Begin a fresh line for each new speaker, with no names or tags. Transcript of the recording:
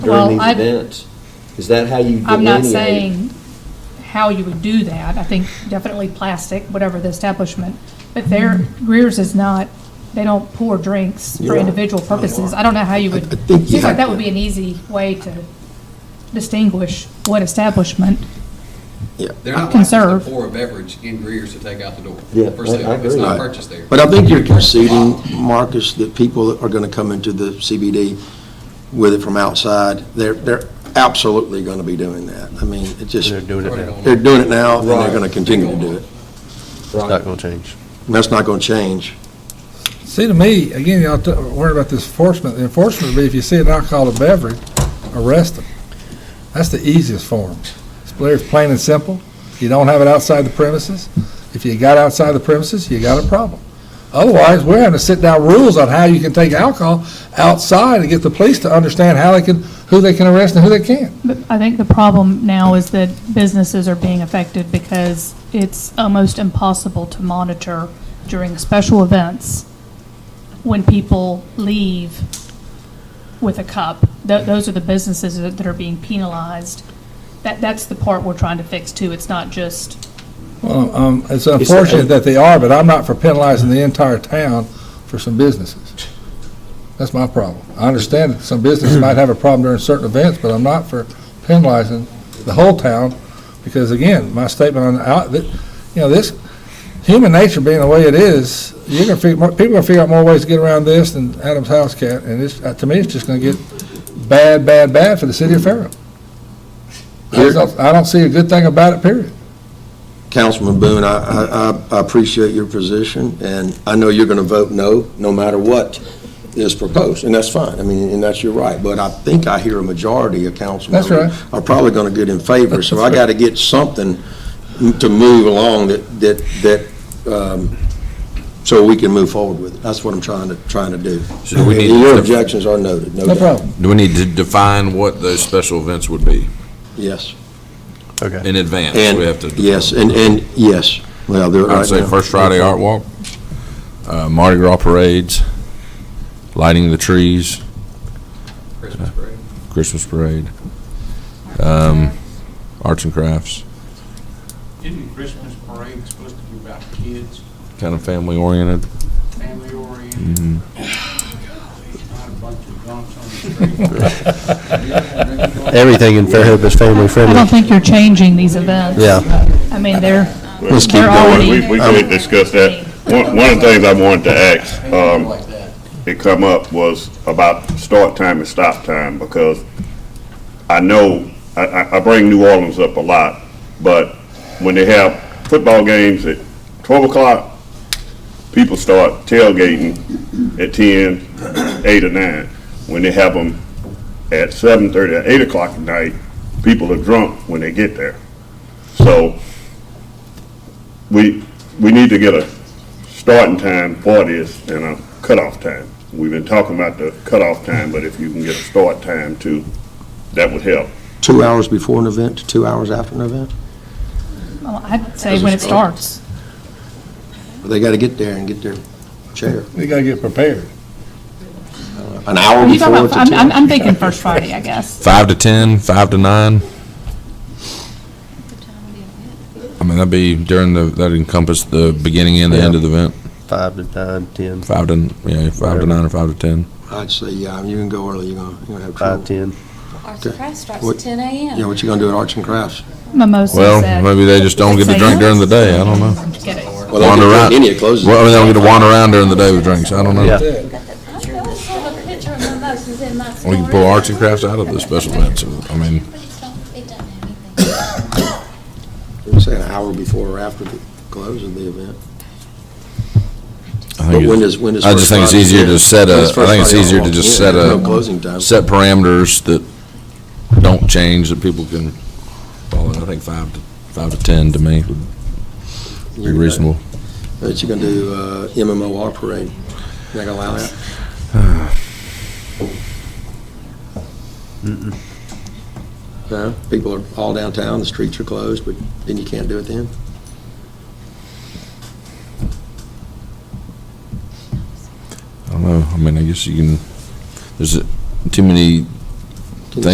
Well,
during
I-
these events? Is that how you
I'm not
delineate it?
saying how you would do that. I think definitely plastic, whatever the establishment. But their,
Mm-hmm.
Greer's is not, they don't pour drinks for
You're right.
individual purposes. I don't know how you would,
I- I think you
seems like
have-
that would be an easy way to distinguish what establishment.
They're not
Conserve.
licensed to pour a beverage in Greer's to take out the door.
Yeah,
for
I-
sale.
I
It's
agree.
not
Right.
purchased there.
But I think you're conceding, Marcus, that people are going to come into the CBD with it from outside. They're, they're absolutely going to be doing that. I mean, it just,
They're doing it now.
they're doing it now, and they're
Right.
going to continue to do it.
It's not going to change.
And That's not going to change.
See, to me, again, y'all t- worried about this enforcement. The Enforcement would be if you see an alcoholic beverage, arrest them. That's the easiest form. It's clear, it's plain and simple. You don't have it outside the premises. If you got outside the premises, you got a problem. Otherwise, we're having to sit down rules on how you can take alcohol outside and get the police to understand how they can, who they can arrest and who they can't.
But I think the problem now is that businesses are being affected because it's almost impossible to monitor during special events when people leave with a cup. Tho- Those are the businesses that that are being penalized. That, that's the part we're trying to fix too. It's not just,
Well, um, it's unfortunate that they are, but I'm not for penalizing the entire town for some businesses. That's my problem. I understand that some businesses might have a problem during certain events, but I'm not for penalizing the whole town, because again, my statement on, out, that, you know, this, human nature being the way it is, you're gonna figure, people are gonna figure out more ways to get around this than Adam's house cat, and it's, uh, to me, it's just gonna get bad, bad, bad for the city of Fairhope. I just don't- I don't see a good thing about it, period.
Councilman Boone, I, I- I, I appreciate your position, and I know you're going to vote no, no matter what is proposed, and that's fine. I mean, and that's your right, but I think I hear a majority of council
That's
members are probably going to get in favor, so I got to get something to move along that, that, that, um, so we can move forward with it. That's what I'm trying to, trying to do.
So we need to-
Your objections are noted, no
No problem.
doubt.
Do we need to define what those special events would be
Yes.
Okay.
in advance?
And,
We have to.
yes, and, and, yes. Well, they're right
I'd say
now.
First Friday Art Walk, uh, Mardi Gras parades, lighting the trees,
Christmas parade.
Christmas parade, um, arts and crafts,
Isn't the Christmas parade supposed to be about kids,
kind of family oriented.
family oriented? Not a bunch of drunks on the street.
Everything in Fairhope is family
I don't
friendly.
think you're changing these events.
Yeah.
I mean, they're,
Let's keep
they're
going.
already.
We, we can discuss that. One, one of the things I wanted to ask, um,
Like that.
it come up was about start time and stop time, because I know, I, I, I bring New Orleans up a lot, but when they have football games at twelve o'clock, people start tailgating at ten, eight or nine. When they have them at seven thirty, at eight o'clock at night, people are drunk when they get there. So we, we need to get a starting time for this and a cutoff time. We've been talking about the cutoff time, but if you can get a start time too, that would help.
Two hours before an event to two hours after an event?
Well, I'd say when it starts.
They got to get there and get their chair.
They gotta get prepared.
An hour
Are you talking
before
about, I'm,
to
I'm- I'm thinking First Friday, I guess.
Five to ten, five to nine. I mean, that'd be during the, that'd encompass the beginning and the end of the event,
Five to nine, 10,
five to, you know, five to nine or five to ten.
I'd say, yeah, you can go early, you're going to have
five,
trouble.
10.
Arts and crafts starts
What-
at ten AM.
Yeah, what you going to do at Arts and Crafts?
Mimosas.
Well,
at-
maybe they just don't get to drink during the day, I don't know.
Get it.
Well, they
Wander
can-
around.
Any of closes.
Well, I mean, they'll get to wander around during the day with drinks. I don't know.
Yeah.
I don't have a picture of mimosas in my store.
We can pull arts and crafts out of the special events. I mean,
But it's not- It doesn't have anything.
You say an hour before or after the close of the event.
I
But
think
when
it's-
does, when does
I just
First
think it's
Friday
easier
end?
to set
When
a-
does
I
First
think it's
Friday
easier to
end?
just
Yeah,
set
there's
a-
No closing time.
set parameters that don't change that people can follow. I think five to, five to 10 to me would be
You're-
reasonable.
But you're going to do uh, MMOR parade. You're not going to allow that? No, people are all downtown, the streets are closed, but then you can't do it then?
I don't know. I mean, I guess you can, there's too many